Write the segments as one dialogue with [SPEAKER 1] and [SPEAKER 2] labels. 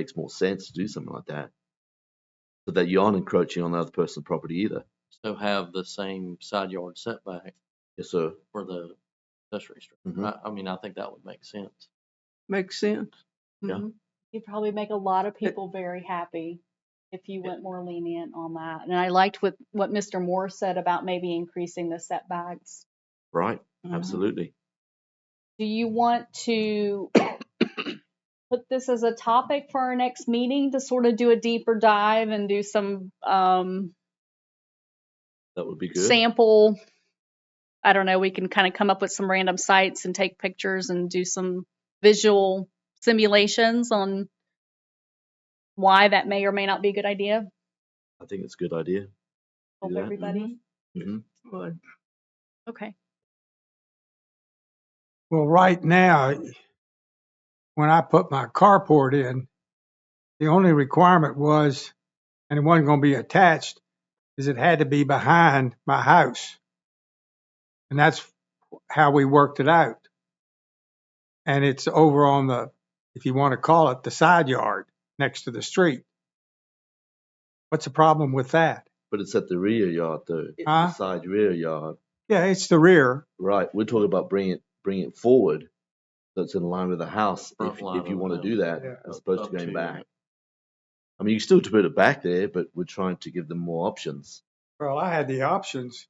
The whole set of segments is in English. [SPEAKER 1] makes more sense to do something like that, so that you aren't encroaching on the other person's property either.
[SPEAKER 2] still have the same side yard setback
[SPEAKER 1] Yes, sir.
[SPEAKER 2] for the accessory
[SPEAKER 1] Mhm.
[SPEAKER 2] structure. I, I mean, I think that would make sense.
[SPEAKER 3] Makes sense.
[SPEAKER 1] Yeah.
[SPEAKER 3] Mhm.
[SPEAKER 4] You'd probably make a lot of people very happy if you went more lenient on that. And I liked what, what Mr. Moore said about maybe increasing the setbacks.
[SPEAKER 1] Right.
[SPEAKER 3] Mhm.
[SPEAKER 1] Absolutely.
[SPEAKER 4] Do you want to put this as a topic for our next meeting to sort of do a deeper dive and do some um,
[SPEAKER 1] That would be good.
[SPEAKER 4] sample? I don't know, we can kind of come up with some random sites and take pictures and do some visual simulations on why that may or may not be a good idea.
[SPEAKER 1] I think it's a good idea.
[SPEAKER 4] Hope
[SPEAKER 1] that.
[SPEAKER 4] everybody.
[SPEAKER 1] hmm
[SPEAKER 3] But-
[SPEAKER 4] Okay.
[SPEAKER 5] Well, right now, when I put my carport in, the only requirement was, and it wasn't going to be attached, is it had to be behind my house. And that's how we worked it out. And it's over on the, if you want to call it, the side yard next to the street. What's the problem with that?
[SPEAKER 1] But it's at the rear yard though, It's the
[SPEAKER 5] Huh?
[SPEAKER 1] side rear yard.
[SPEAKER 5] Yeah, it's the rear.
[SPEAKER 1] Right. We're talking about bringing it, bringing it forward, so it's in line with the house.
[SPEAKER 2] Front
[SPEAKER 1] if,
[SPEAKER 2] line
[SPEAKER 1] if you
[SPEAKER 2] of the
[SPEAKER 1] want to do
[SPEAKER 2] building.
[SPEAKER 1] that,
[SPEAKER 5] Yeah.
[SPEAKER 1] as opposed
[SPEAKER 2] Up
[SPEAKER 1] to going
[SPEAKER 2] to-
[SPEAKER 1] back. I mean, you can still put it back there, but we're trying to give them more options.
[SPEAKER 5] Well, I had the options,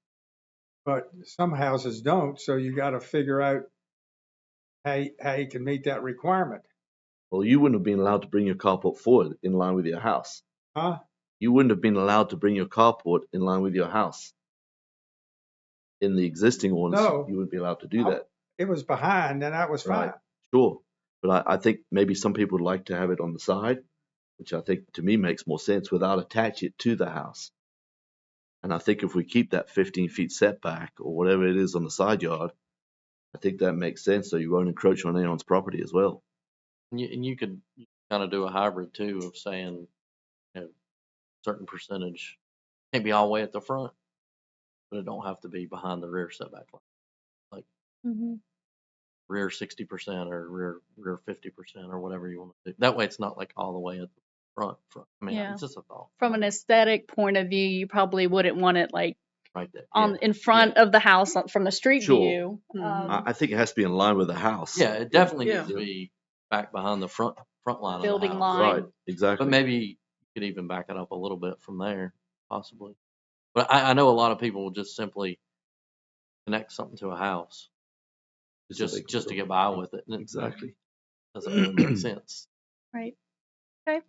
[SPEAKER 5] but some houses don't, so you gotta figure out how, you- how you can meet that requirement,
[SPEAKER 1] Well, you wouldn't have been allowed to bring your carport forward in line with your house.
[SPEAKER 5] huh?
[SPEAKER 1] You wouldn't have been allowed to bring your carport in line with your house. In the existing ordinance,
[SPEAKER 5] No.
[SPEAKER 1] you wouldn't be allowed to do
[SPEAKER 5] I-
[SPEAKER 1] that.
[SPEAKER 5] It was behind and that was fine.
[SPEAKER 1] Right. Sure, but I, I think maybe some people would like to have it on the side, which I think to me makes more sense without attach it to the house. And I think if we keep that 15 feet setback or whatever it is on the side yard, I think that makes sense. So you won't encroach on anyone's property as well.
[SPEAKER 2] And you, and you could kind of do a hybrid too of saying, you know, certain percentage, can't be all the way at the front, but it don't have to be behind the rear setback line. Rear sixty percent or rear, rear fifty percent or whatever you want to do. That way it's not like all the way at the front, front. I mean,
[SPEAKER 4] Yeah.
[SPEAKER 2] it's just a thought
[SPEAKER 4] From an aesthetic point of view, you probably wouldn't want it like
[SPEAKER 2] right there.
[SPEAKER 4] on in front of the house on- from the street
[SPEAKER 1] Sure.
[SPEAKER 4] view.
[SPEAKER 3] Mhm.
[SPEAKER 4] Um,
[SPEAKER 1] I, I think it has to be in line with the house.
[SPEAKER 2] Yeah, it definitely needs
[SPEAKER 1] Yeah.
[SPEAKER 2] to be back behind the front, front line of the
[SPEAKER 4] Building
[SPEAKER 2] house.
[SPEAKER 4] line.
[SPEAKER 1] Right,
[SPEAKER 2] But
[SPEAKER 1] exactly.
[SPEAKER 2] maybe you could even back it up a little bit from there, possibly. But I, I know a lot of people will just simply connect something to a house
[SPEAKER 1] It's a
[SPEAKER 2] just
[SPEAKER 1] big
[SPEAKER 2] just to
[SPEAKER 1] deal.
[SPEAKER 2] get by with it, and it
[SPEAKER 1] Exactly.
[SPEAKER 2] doesn't really make sense.
[SPEAKER 4] Right. Okay.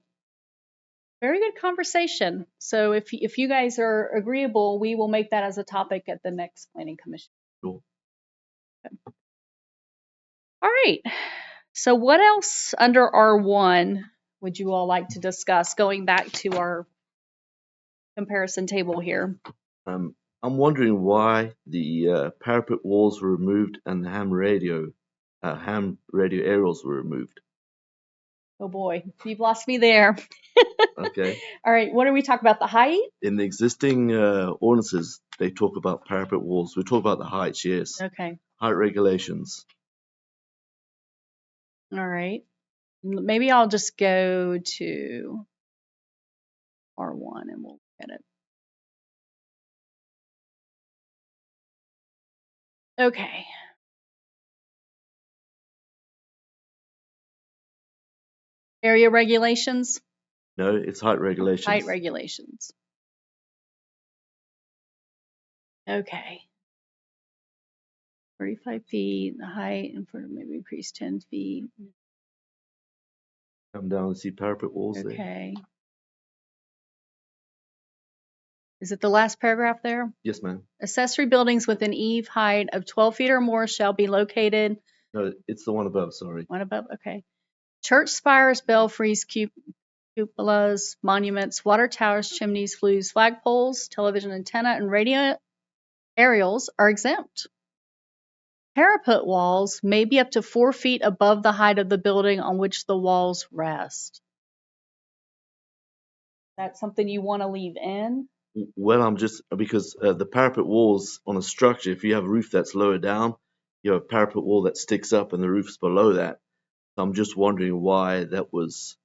[SPEAKER 4] Very good conversation. So if, y- if you guys are agreeable, we will make that as a topic at the next planning commission.
[SPEAKER 1] Cool.
[SPEAKER 4] Okay. All right. So what else under R1 would you all like to discuss, going back to our comparison table here?
[SPEAKER 1] Um, I'm wondering why the uh, parapet walls were removed and the ham radio, uh, ham radio aerials were removed.
[SPEAKER 4] Oh boy, you've lost me there.
[SPEAKER 1] Okay.
[SPEAKER 4] All right, what are we talking about? The height?
[SPEAKER 1] in the existing uh, ordinances, they talk about parapet walls. We talk about the heights, yes.
[SPEAKER 4] Okay,
[SPEAKER 1] Height regulations.
[SPEAKER 4] all right. M- Maybe I'll just go to R1 and we'll look at it. Okay. Area regulations,
[SPEAKER 1] No, it's height regulations.
[SPEAKER 4] height regulations. Okay. 35 feet, the height, and for maybe increase 10 feet.
[SPEAKER 1] Come down and see parapet walls there.
[SPEAKER 4] Okay. Is it the last paragraph there?
[SPEAKER 1] Yes, ma'am.
[SPEAKER 4] Accessory buildings with an eave height of 12 feet or more shall be located,
[SPEAKER 1] No, it's the one above, sorry.
[SPEAKER 4] one above, okay. Church spires, belfries, cu- cupolas, monuments, water towers, chimneys, flues, flagpoles, television antenna, and radio aerials are exempt. Parapet walls may be up to four feet above the height of the building on which the walls rest. That's something you want to leave in?
[SPEAKER 1] W- Well, I'm just, because uh, the parapet walls on a structure, if you have a roof that's lower down, you have a parapet wall that sticks up and the roof's below that. I'm just wondering why that was